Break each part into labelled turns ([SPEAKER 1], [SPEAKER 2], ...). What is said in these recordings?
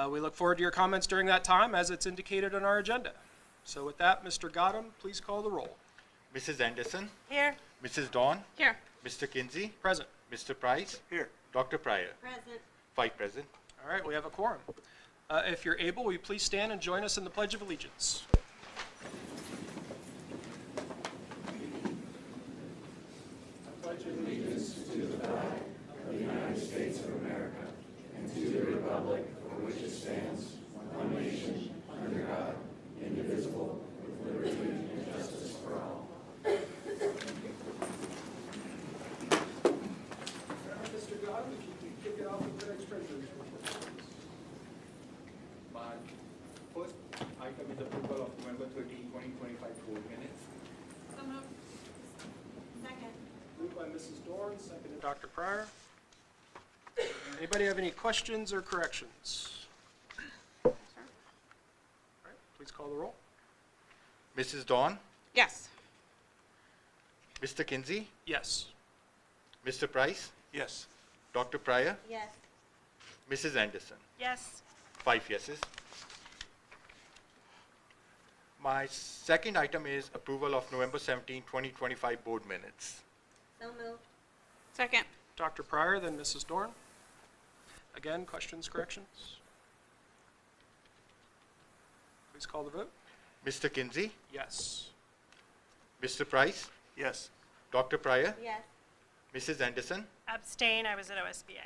[SPEAKER 1] Uh, We look forward to your comments during that time, as it's indicated on our agenda. So with that, Mr. Godum, please call the roll.
[SPEAKER 2] Mrs. Anderson,
[SPEAKER 3] Here.
[SPEAKER 2] Mrs. Dawn,
[SPEAKER 3] Here.
[SPEAKER 2] Mr. Kinsey,
[SPEAKER 1] Present.
[SPEAKER 2] Mr. Price,
[SPEAKER 4] Here.
[SPEAKER 2] Dr. Pryor,
[SPEAKER 3] Present.
[SPEAKER 2] five present.
[SPEAKER 1] All right, we have a quorum. Uh, If you're able, will you please stand and join us in the Pledge of Allegiance?
[SPEAKER 5] Mr. Godwin, if you could kick it off with the next treasurer's report.
[SPEAKER 4] My first item is approval of November 13, 2025 board minutes.
[SPEAKER 3] So moved. Second.
[SPEAKER 5] Moved by Mrs. Dorn, seconded.
[SPEAKER 1] Dr. Pryor? Anybody have any questions or corrections? All right, please call the roll.
[SPEAKER 2] Mrs. Dawn,
[SPEAKER 3] Yes.
[SPEAKER 2] Mr. Kinsey,
[SPEAKER 1] Yes.
[SPEAKER 2] Mr. Price,
[SPEAKER 4] Yes.
[SPEAKER 2] Dr. Pryor,
[SPEAKER 3] Yes.
[SPEAKER 2] Mrs. Anderson,
[SPEAKER 3] Yes.
[SPEAKER 2] five yeses. My second item is approval of November 17, 2025 board minutes.
[SPEAKER 3] So moved. Second.
[SPEAKER 1] Dr. Pryor, then Mrs. Dorn. Again, questions, corrections? Please call the vote.
[SPEAKER 2] Mr. Kinsey,
[SPEAKER 1] Yes.
[SPEAKER 2] Mr. Price,
[SPEAKER 4] Yes.
[SPEAKER 2] Dr. Pryor,
[SPEAKER 3] Yes.
[SPEAKER 2] Mrs. Anderson,
[SPEAKER 6] Abstain, I was at OSBA.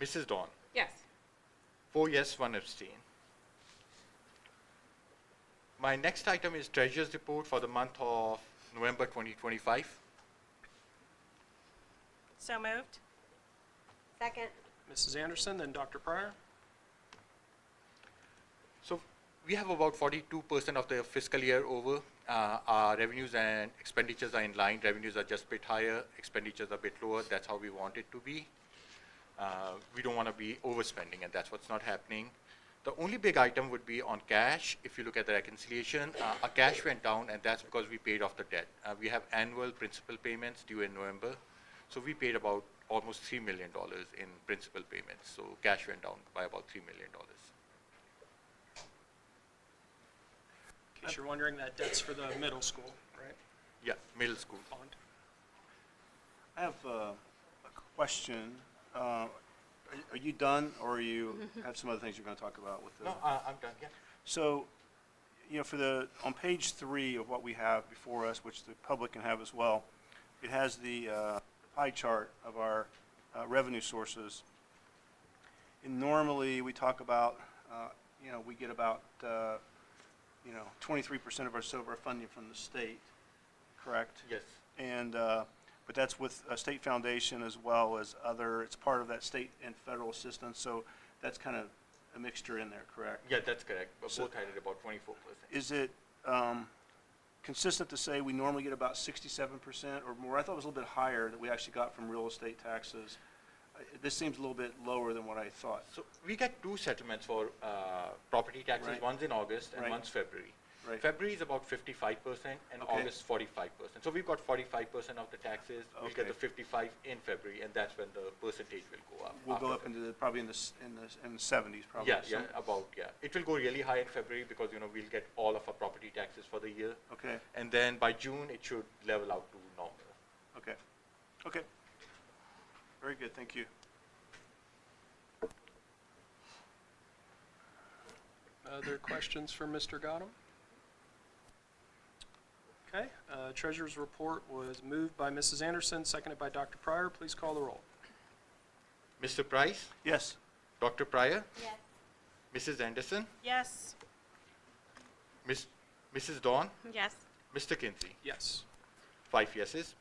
[SPEAKER 2] Mrs. Dawn,
[SPEAKER 3] Yes.
[SPEAKER 2] Four yes, one abstain. My next item is Treasurer's Report for the month of November 2025.
[SPEAKER 6] So moved?
[SPEAKER 3] Second.
[SPEAKER 1] Mrs. Anderson, then Dr. Pryor.
[SPEAKER 2] So we have about 42% of the fiscal year over. Uh, Our revenues and expenditures are in line. Revenues are just a bit higher, expenditures are a bit lower. That's how we want it to be. Uh, We don't want to be overspending, and that's what's not happening. The only big item would be on cash. If you look at the reconciliation, uh, our cash went down, and that's because we paid off the debt. Uh, We have annual principal payments due in November, so we paid about almost $3 million in principal payments. So cash went down by about $3 million.
[SPEAKER 1] In case you're wondering, that debt's for the middle school, right?
[SPEAKER 2] Yeah, middle school.
[SPEAKER 1] Bond.
[SPEAKER 7] I have uh, a question. Uh, Are are you done, or are you have some other things you're going to talk about with the?
[SPEAKER 2] No, I, I'm done, yeah.
[SPEAKER 7] So, you know, for the, on page three of what we have before us, which the public can have as well, it has the uh, pie chart of our uh, revenue sources. And normally, we talk about, uh, you know, we get about, uh, you know, 23% of our silver funding from the state, correct?
[SPEAKER 2] Yes.
[SPEAKER 7] And, uh, but that's with a state foundation as well as other, it's part of that state and federal assistance, so that's kind of a mixture in there, correct?
[SPEAKER 2] Yeah, that's correct. But
[SPEAKER 7] So-
[SPEAKER 2] Both had it about twenty-four percent.
[SPEAKER 7] Is it um, consistent to say we normally get about sixty-seven percent or more? I thought it was a little bit higher that we actually got from real estate taxes. Uh, This seems a little bit lower than what I thought.
[SPEAKER 2] So we get two settlements for, uh, property taxes,
[SPEAKER 7] Right.
[SPEAKER 2] one's in August and
[SPEAKER 7] Right.
[SPEAKER 2] one's February.
[SPEAKER 7] Right.
[SPEAKER 2] February is about fifty-five percent and
[SPEAKER 7] Okay.
[SPEAKER 2] August forty-five percent. So we've got forty-five percent of the taxes. We'll get
[SPEAKER 7] Okay.
[SPEAKER 2] the fifty-five in February and that's when the percentage will go up.
[SPEAKER 7] We'll go
[SPEAKER 2] after
[SPEAKER 7] up
[SPEAKER 2] that.
[SPEAKER 7] into the, probably in the, s- in the, in the seventies probably.
[SPEAKER 2] Yeah, yeah,
[SPEAKER 7] some-
[SPEAKER 2] about, yeah. It will go really high in February because, you know, we'll get all of our property taxes for the year.
[SPEAKER 7] Okay,
[SPEAKER 2] And then by June, it should level out to normal.
[SPEAKER 7] okay, okay. Very good, thank you.
[SPEAKER 1] Other questions for Mr. Godum? Okay, uh, Treasurer's report was moved by Mrs. Anderson, seconded by Dr. Pryor. Please call the roll.
[SPEAKER 2] Mr. Price,
[SPEAKER 7] Yes,
[SPEAKER 2] Dr. Pryor,
[SPEAKER 3] Yes.
[SPEAKER 2] Mrs. Anderson,
[SPEAKER 6] Yes.
[SPEAKER 2] Miss, Mrs. Dawn,
[SPEAKER 6] Yes.
[SPEAKER 2] Mr. Kinsey,
[SPEAKER 1] Yes.
[SPEAKER 2] five yeses.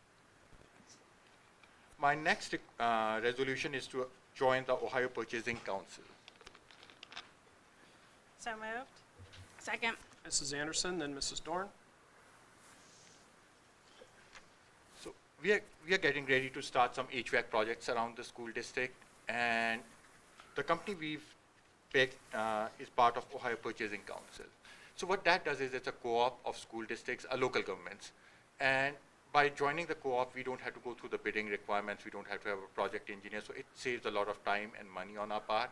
[SPEAKER 2] My next uh, resolution is to join the Ohio Purchasing Council.
[SPEAKER 6] So moved?
[SPEAKER 3] Second.
[SPEAKER 1] Mrs. Anderson, then Mrs. Dorn.
[SPEAKER 2] So we are, we are getting ready to start some HVAC projects around the school district, and the company we've picked uh, is part of Ohio Purchasing Council. So what that does is it's a co-op of school districts, uh, local governments, and by joining the co-op, we don't have to go through the bidding requirements, we don't have to have a project engineer, so it saves a lot of time and money on our part.